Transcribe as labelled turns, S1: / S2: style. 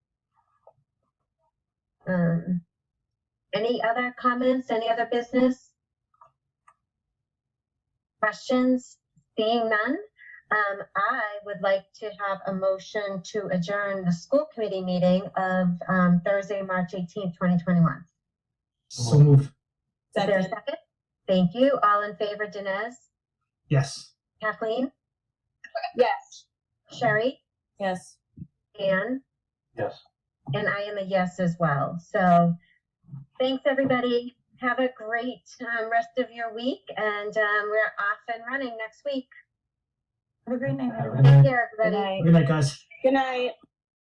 S1: Um, any other comments, any other business? Questions? Seeing none, um, I would like to have a motion to adjourn the school committee meeting of, um, Thursday, March eighteenth, twenty twenty-one.
S2: So move.
S1: Is there a second? Thank you. All in favor, Dinesh?
S2: Yes.
S1: Kathleen?
S3: Yes.
S1: Sherry?
S3: Yes.
S1: Anne?
S2: Yes.
S1: And I am a yes as well. So thanks, everybody. Have a great um, rest of your week, and um, we're off and running next week.
S3: Have a great night,
S2: Have a Good
S3: everyone.
S2: night.
S1: Take care, everybody.
S2: Good night, guys.
S3: Good night.